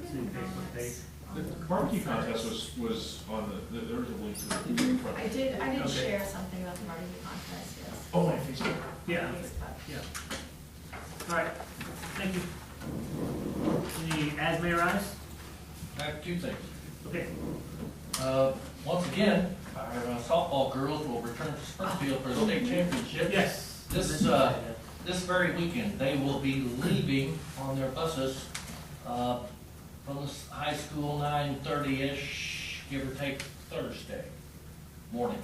Facebook page? The barbecue contest was, was on the, there was a link to it. in front of I it. did, I did Okay. share something about the barbecue contest, yes. Oh, on Facebook. Yeah, on Facebook. yeah. All right, thank you. Any as may arise? I have two things. Okay, Uh, once again, our uh, softball girls will return to Springfield for the state championship. yes. This, uh, this very weekend, they will be leaving on their buses, uh, from the s- high school nine thirty-ish, give or take Thursday morning.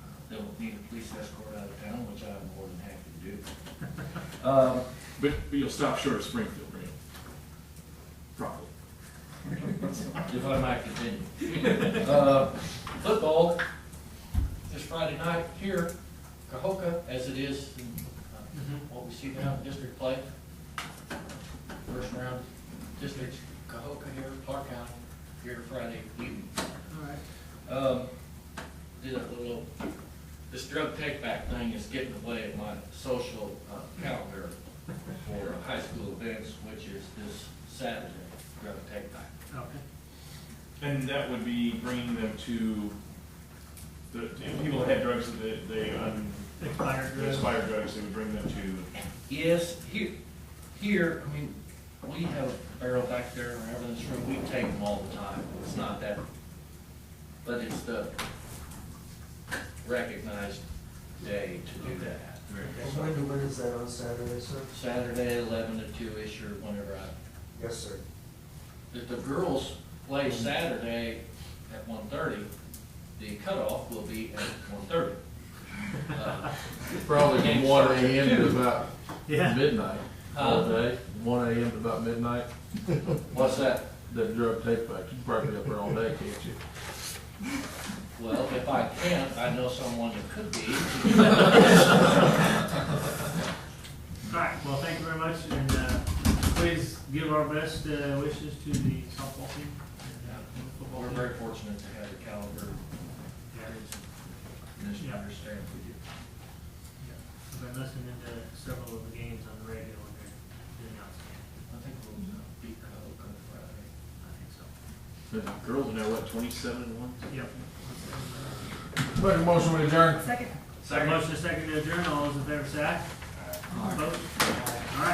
Uh, They'll need a police escort out of town, which I'm more than happy to do. Um, But, but you'll stop short of Springfield, right? Probably. if I might continue. Uh, Football is Friday night here, Cahokia, as it is in uh, Mhm. what we see now in district play. First round districts, Cahokia here, Clark County, here Friday evening. All right. Um, did a little, this drug take back thing is getting away in my social uh, calendar for high school events, which is this Saturday, drug take back. Okay. And that would be bringing them to, the, if people had drugs that they, um, Expired drugs. expired drugs, they would bring them to, Yes, here, here, I mean, we have a barrel back there and everything in this room, we take them all the time, it's not that, but it's the recognized day to do that. And when, when is that on Saturday, sir? Saturday, eleven to two-ish or whenever I, Yes, sir. if the girls play Saturday at one thirty, the cutoff will be at one thirty. Uh, Probably from Game's one starting at AM to two. about Yeah, midnight, all day, one AM to about midnight, uh, What's that? that drug take back, you probably up there all day, can't you? Well, if I can't, I know someone that could be. all right, well, thank you very much, and, uh, please give our best uh, wishes to the softball team. and, uh, and football We're team. very fortunate to have the caliber Yeah, Commission Yeah. understand we do. I've been listening to several of the games on the radio, and they're doing outstanding, I think we'll beat Coke on Friday. I think so. the girls are now, what, twenty-seven and one? Yep. Make a motion to adjourn. Second. Motion is second to adjourn, all those in favor say aye. Opposed?